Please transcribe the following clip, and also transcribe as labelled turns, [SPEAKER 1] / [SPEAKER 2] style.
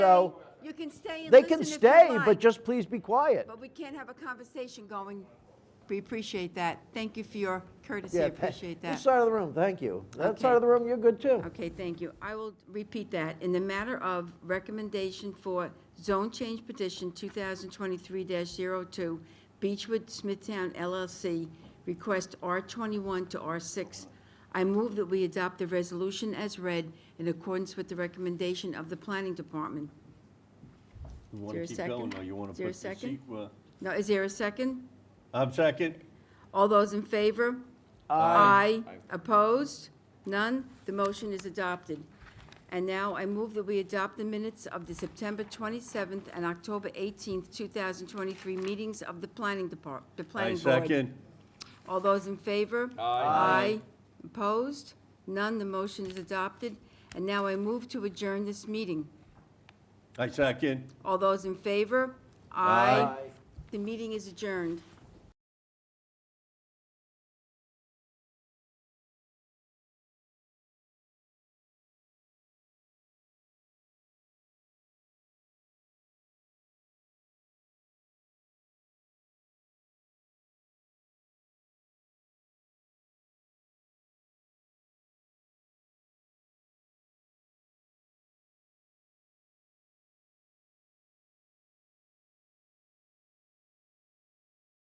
[SPEAKER 1] So
[SPEAKER 2] You can stay and
[SPEAKER 1] they can
[SPEAKER 2] listen if you
[SPEAKER 1] stay,
[SPEAKER 2] like,
[SPEAKER 1] but just please be quiet.
[SPEAKER 2] But we can't have a conversation going. We appreciate that. Thank you for your courtesy.
[SPEAKER 1] Yeah,
[SPEAKER 2] appreciate that.
[SPEAKER 1] This side of the room, thank you. That
[SPEAKER 2] Okay.
[SPEAKER 1] side of the room, you're good too.
[SPEAKER 2] Okay, thank you. I will repeat that. In the matter of recommendation for zone change petition 2023-02, Beechwood Smithtown LLC, request R21 to R6, I move that we adopt the resolution as read in accordance with the recommendation of the Planning Department.
[SPEAKER 3] You
[SPEAKER 2] Is there a
[SPEAKER 3] want to keep going,
[SPEAKER 2] second?
[SPEAKER 3] or you want
[SPEAKER 2] Is
[SPEAKER 3] to
[SPEAKER 2] there a
[SPEAKER 3] put the
[SPEAKER 2] second?
[SPEAKER 3] sequa?
[SPEAKER 2] Now, is there a second?
[SPEAKER 3] I'm second.
[SPEAKER 2] All those in favor? Aye. Opposed? None? The motion is adopted. And now I move that we adopt the minutes of the September 27th and October 18th, 2023 meetings of the Planning Depart, the
[SPEAKER 3] I
[SPEAKER 2] Planning Board.
[SPEAKER 3] second.
[SPEAKER 2] All those in favor? Aye. Opposed? None? The motion is adopted. And now I move to adjourn this meeting.
[SPEAKER 3] I second.
[SPEAKER 2] All those in favor?
[SPEAKER 3] Aye.
[SPEAKER 2] The meeting is adjourned.